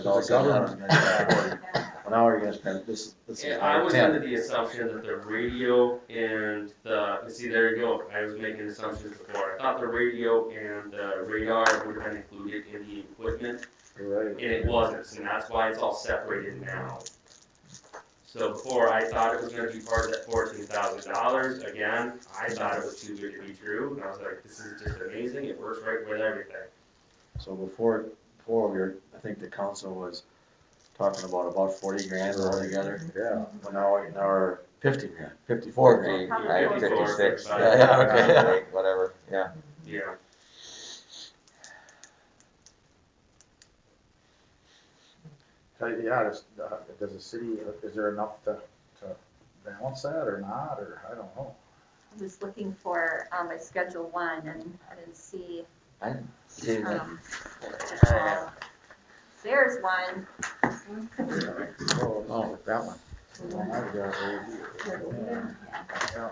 It's all said and done in this category. Well, now we're gonna spend, this, this is Yeah, I our was under ten. the assumption that the radio and the, see, there you go, I was making assumptions before. I thought the radio and the radar would have been included in the equipment, You're and it wasn't, so that's why it's all separated now. So before, I thought it was gonna be part of that fourteen thousand dollars, again, I thought it was too good to be true, and I was like, this is just amazing, it works right with everything. So before, before we were, I think the council was talking about about forty grand altogether. Yeah. Well, now, we're- now we're fifty grand, fifty-four Fifty, grand. right, fifty-six, Yeah, yeah, yeah, okay. yeah, like, whatever, yeah. Yeah, So, yeah, does, uh, does the city, is there enough to, to balance that or not, or I don't know. I was looking for, um, my schedule one and I didn't see, Yeah, um, uh, there's one. Oh, that one.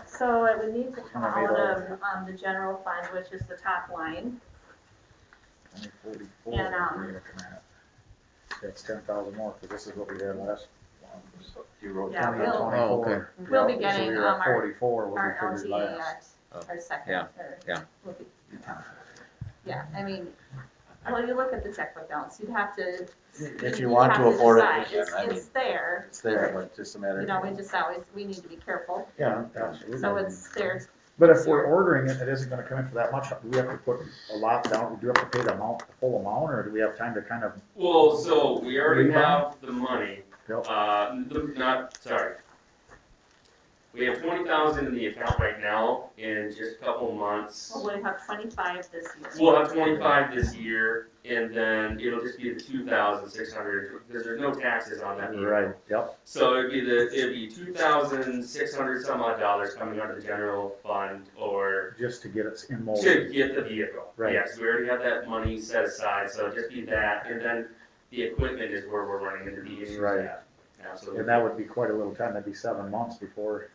So it would need to come Kinda made out all- of, um, the general fund, which is the top line. Only forty-four, we're And, um, looking at. That's ten thousand more, because this is what we had last one. You wrote Yeah, down we'll- that twenty. Oh, okay. We'll be Yeah, so getting, we were at um, our- Forty-four, what Our we figured LTA last. at Oh, our second yeah, or- yeah. will be- Yeah, I mean, well, you look at the checkbook balance, you'd have to. If you want have to afford it, decide. yeah, It's, I mean, it's there, it's there, but just a matter you of. know, we just always, we need to be careful, Yeah, absolutely. so it's there But if we're ordering it, it isn't gonna come in for that much, do we have to put a lot down, do we have to pay the amount, the full amount, or do we have time to kind of, well, so we already Refund? have the money, you Uh, n- not, sorry. We have twenty thousand in the account right now, in just a couple months. Well, we have twenty-five this year. We'll have twenty-five this year, and then it'll just be the two thousand six hundred, because there's no taxes on that know? either. Right, yep, So it'd be the, it'd be two thousand six hundred some odd dollars coming out of the general fund, or just to get it in mold. to get the vehicle. Right. Yes, we already have that money set aside, so it'd just be that, and then the equipment is where we're running into the issues Right. at. Absolutely. And that would be quite a little time, that'd be seven months before,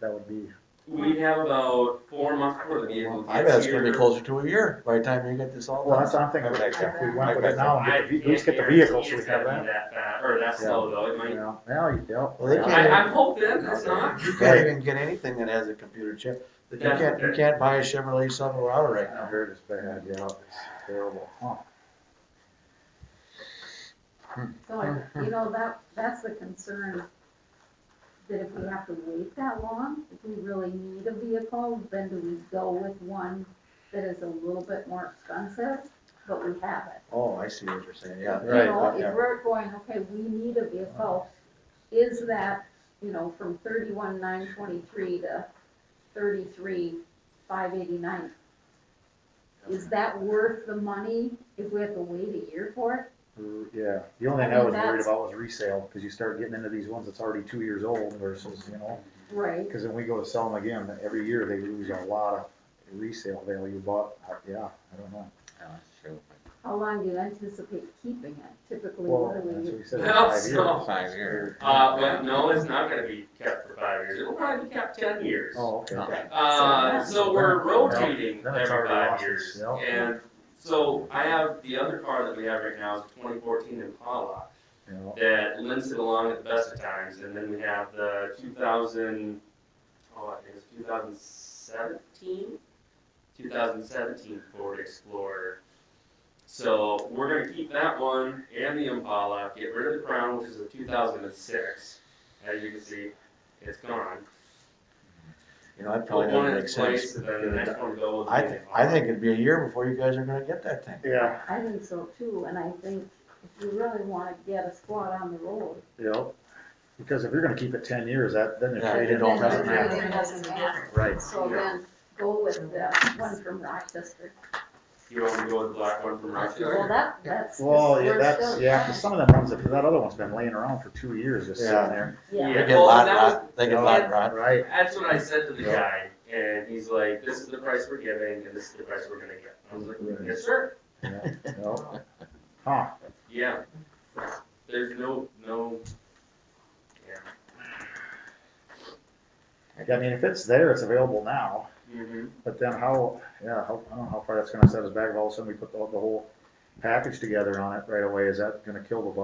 that would be, We have about four months before the vehicle I bet gets it's gonna be here. closer to a year by the time you get this all well, done. that's, I'm thinking, Okay. if we went with it now, and I get the ve- at least get the can't guarantee vehicle, so we it's have gonna be that. That fast, or that slow though, it might, Yeah, now, you- yep. Well, they I, can't- I'm hoping it's not. You can't even get anything that has a computer chip. You That's can't, you okay. can't buy a Chevrolet Silverado right I now. heard it's bad, yeah, it's terrible, huh? So, I- you know, that, that's the concern, that if we have to wait that long, if we really need a vehicle, then do we go with one that is a little bit more expensive, but we have it? Oh, I see what you're saying, yeah. You know, if we're going, okay, we need a vehicle, is that, you know, from thirty-one nine twenty-three to thirty-three five eighty-nine? Is that worth the money if we have to wait a year for it? Yeah, the only thing I I mean, was worried that's- about was resale, because you start getting into these ones that's already two years old versus, you know, Right. because then we go to sell them again, every year they lose a lot of resale value, but, uh, yeah, I don't know. How long do you anticipate keeping it? Typically, Well, what that's do what we, we said, Well, five so- years. Five years. Uh, but no, it's not gonna be kept for five years, it'll probably be kept ten years. Oh, okay. Okay. Uh, so we're rotating Then it's every already five lost years, itself. and so I have, the other car that we have right now is twenty fourteen Impala. Yeah. that limps it along at the best of times, and then we have the 2000, oh, I think it's 2017, 2017 Ford Explorer. So we're gonna keep that one and the Impala, get rid of the Crown, which is a 2006. As you can see, it's gone. You know, that Put probably one doesn't uh, in make its place, sense. and then the next one go with the I, thi- I Impala. think it'd be a year before you guys are gonna get that thing. Yeah, I think so too, and I think if you really wanna get a squad on the road. yeah, because if you're gonna keep it ten years, that, then it Yeah. traded It all on. doesn't then matter. It doesn't matter. Right. So Yeah. then go with the one from Rochester. You want me to go with the black one from Well, Rochester? that, that's. Well, yeah, we're that's, still- yeah, 'cause some of them ones, if that other one's been laying around for two years, just sitting Yeah. there. Yeah. They get well, lot that was- rot, they get lot rot. Right. That's what I said to the Yeah. guy, and he's like, "This is the price we're giving, and this is the price we're gonna get." I was like, "Yes, sir. Yeah. Huh, Yeah. There's no no." Yeah. Yeah, I mean, if it's there, it's available now. Mm-hmm. But then how, yeah, how, I don't know how far that's gonna set us back, if all of a sudden we put the, the whole package together on it right away, is that gonna kill the budget?